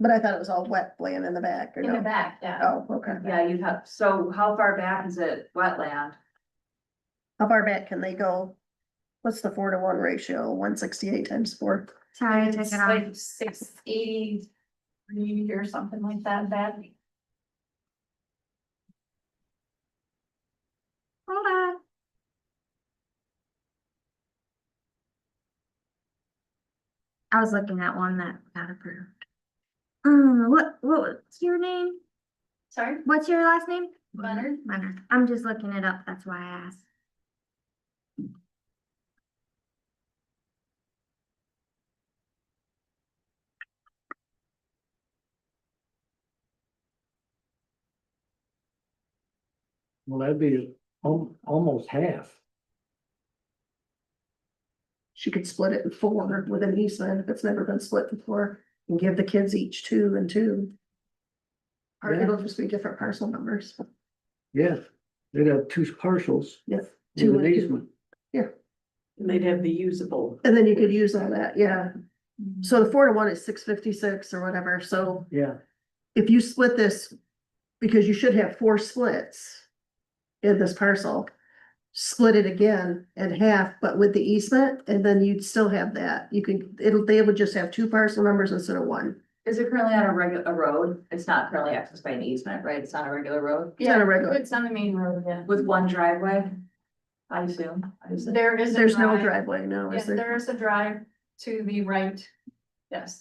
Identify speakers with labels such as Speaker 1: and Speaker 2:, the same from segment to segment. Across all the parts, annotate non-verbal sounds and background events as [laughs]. Speaker 1: But I thought it was all wet land in the back or
Speaker 2: in the
Speaker 1: no?
Speaker 2: back, yeah.
Speaker 1: Oh, okay.
Speaker 3: Yeah, you have, so how far back is it wetland?
Speaker 1: How far back can they go? What's the four to one ratio? One sixty-eight times four?
Speaker 4: Sorry, I took
Speaker 2: It's
Speaker 4: it off.
Speaker 2: like six eighty-three or something like that, that.
Speaker 4: Hold on. I was looking at one that got approved. Um, what, what was your name?
Speaker 2: Sorry,
Speaker 4: What's your last name?
Speaker 2: Leonard?
Speaker 4: Leonard. I'm just looking it up, that's why I asked.
Speaker 5: Well, that'd be al- almost half.
Speaker 1: She could split it in four with an easement if it's never been split before and give the kids each two and two. Or
Speaker 5: Yeah.
Speaker 1: it'll just be different parcel numbers.
Speaker 5: Yes, they'd have two parcels.
Speaker 1: Yes.
Speaker 5: with
Speaker 1: Two and
Speaker 5: an
Speaker 1: two.
Speaker 5: easement.
Speaker 6: And they'd have the usable.
Speaker 1: And then you could use all that, yeah.
Speaker 3: Mm-hmm.
Speaker 1: So the four to one is six fifty-six or whatever, so
Speaker 5: Yeah,
Speaker 1: if you split this, because you should have four splits in this parcel, split it again in half, but with the easement, and then you'd still have that. You can, it'll, they would just have two parcel numbers instead of one.
Speaker 3: Is it currently on a regular, a road? It's not currently accessed by an easement, right? It's on a regular road
Speaker 1: It's not a regular.
Speaker 2: It's on the main road, yeah.
Speaker 3: with one driveway? I assume, I assume.
Speaker 2: There is. a
Speaker 1: There's no
Speaker 2: drive.
Speaker 1: driveway, no,
Speaker 2: Yeah,
Speaker 1: is there?
Speaker 2: there is a drive to the right, yes.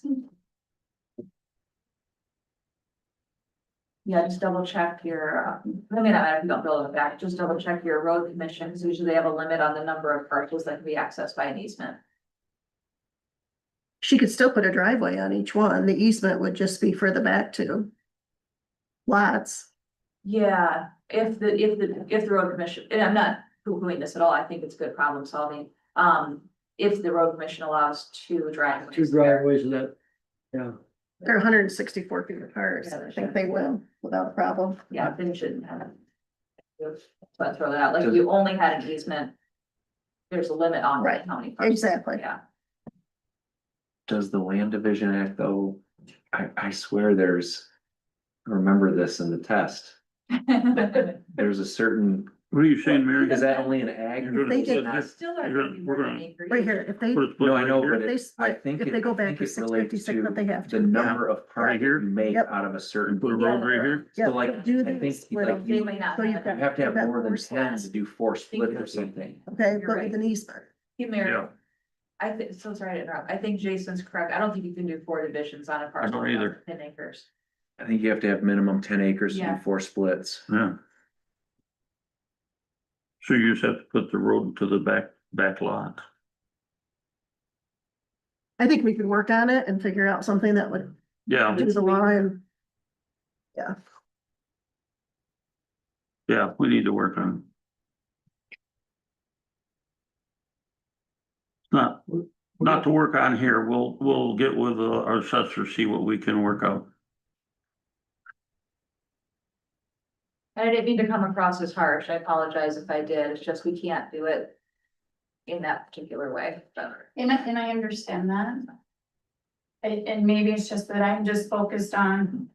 Speaker 3: Yeah, just double check your, uh, I mean, I don't build it back, just double check your road commissions, usually they have a limit on the number of parcels that can be accessed by an easement.
Speaker 1: She could still put a driveway on each one. The easement would just be for the back two lots.
Speaker 3: Yeah, if the, if the, if the road commission, and I'm not poo-pooing this at all, I think it's good problem solving. Um, if the road commission allows two driveways.
Speaker 5: two driveways and that, yeah.
Speaker 1: They're hundred and sixty-four feet apart, so I think they will without a problem.
Speaker 3: Yeah, then you shouldn't have. But Uh, throw that out, like if you only had an easement. There's a limit on
Speaker 1: Right,
Speaker 3: how many. parcels,
Speaker 1: Exactly.
Speaker 3: Yeah,
Speaker 7: Does the Land Division Act though, I, I swear there's, I remember this in the test,
Speaker 3: [laughs]
Speaker 7: there's a certain.
Speaker 8: What are you saying, Mary?
Speaker 7: Is that only an ag?
Speaker 8: You're
Speaker 1: They
Speaker 8: gonna
Speaker 1: did
Speaker 8: split
Speaker 1: not.
Speaker 8: this-
Speaker 3: still are.
Speaker 8: You're-
Speaker 3: thinking
Speaker 8: we're
Speaker 3: more than
Speaker 8: gonna-
Speaker 3: an acre.
Speaker 1: Right here, if they,
Speaker 8: put it split
Speaker 7: No, I
Speaker 8: right
Speaker 7: know,
Speaker 8: here.
Speaker 1: if
Speaker 7: but
Speaker 1: they
Speaker 7: it- I
Speaker 1: split-
Speaker 7: think.
Speaker 1: if
Speaker 7: it-
Speaker 1: they go
Speaker 7: I
Speaker 1: back
Speaker 7: think
Speaker 1: to
Speaker 7: it relates
Speaker 1: 656, but they have to.
Speaker 7: The number of
Speaker 8: Right
Speaker 7: parts
Speaker 8: here?
Speaker 7: you make
Speaker 1: Yep.
Speaker 7: out of a certain.
Speaker 8: Put a road right here?
Speaker 1: Yeah,
Speaker 7: So like, I
Speaker 1: do the
Speaker 7: think
Speaker 1: split
Speaker 7: like
Speaker 1: of-
Speaker 7: you
Speaker 3: They may not
Speaker 1: So you've
Speaker 3: have.
Speaker 1: got-
Speaker 7: you have to have
Speaker 1: That
Speaker 7: more than
Speaker 1: force
Speaker 7: ten
Speaker 1: that.
Speaker 7: to do four split
Speaker 3: You're
Speaker 7: or something.
Speaker 1: okay,
Speaker 3: You're
Speaker 1: but
Speaker 3: right.
Speaker 1: with an easement.
Speaker 3: Hey, Mary,
Speaker 8: Yeah.
Speaker 3: I think, so sorry to interrupt, I think Jason's correct, I don't think you can do four divisions on a parcel.
Speaker 8: don't
Speaker 3: of
Speaker 8: either.
Speaker 3: Ten acres.
Speaker 7: I think you have to have minimum ten acres to
Speaker 3: Yeah.
Speaker 7: do four splits.
Speaker 8: Yeah. So you just have to put the road to the back, back lot.
Speaker 1: I think we could work on it and figure out something that would
Speaker 8: Yeah,
Speaker 1: do the line.
Speaker 8: yeah, we need to work on. it. Not, not to work on here, we'll, we'll get with uh, our assessor, see what we can work out.
Speaker 3: And I didn't mean to come across as harsh, I apologize if I did, it's just we can't do it. In that particular way, but
Speaker 2: And I, and I understand that. And, and maybe it's just that I'm just focused on,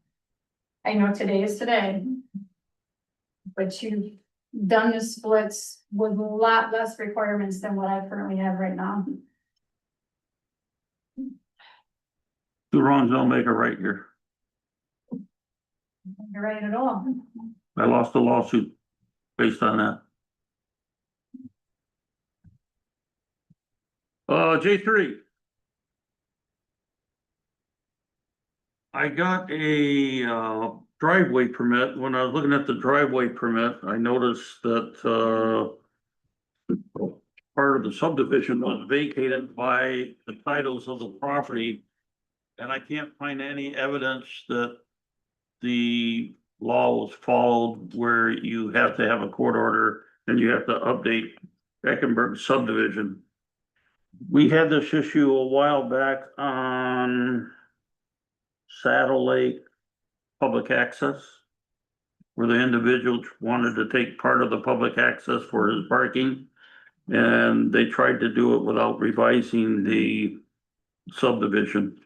Speaker 2: I know today is today. But you've done the splits with a lot less requirements than what I currently have right now.
Speaker 8: The wrongs don't make a right here.
Speaker 2: You're right at all.
Speaker 8: I lost a lawsuit based on that. Uh, J three. I got a uh, driveway permit. When I was looking at the driveway permit, I noticed that, uh, part of the subdivision was vacated by the titles of the property. And I can't find any evidence that the law was followed where you have to have a court order and you have to update Eckenberg subdivision. We had this issue a while back on Saddle Lake Public Access. Where the individual wanted to take part of the public access for his parking. And they tried to do it without revising the subdivision.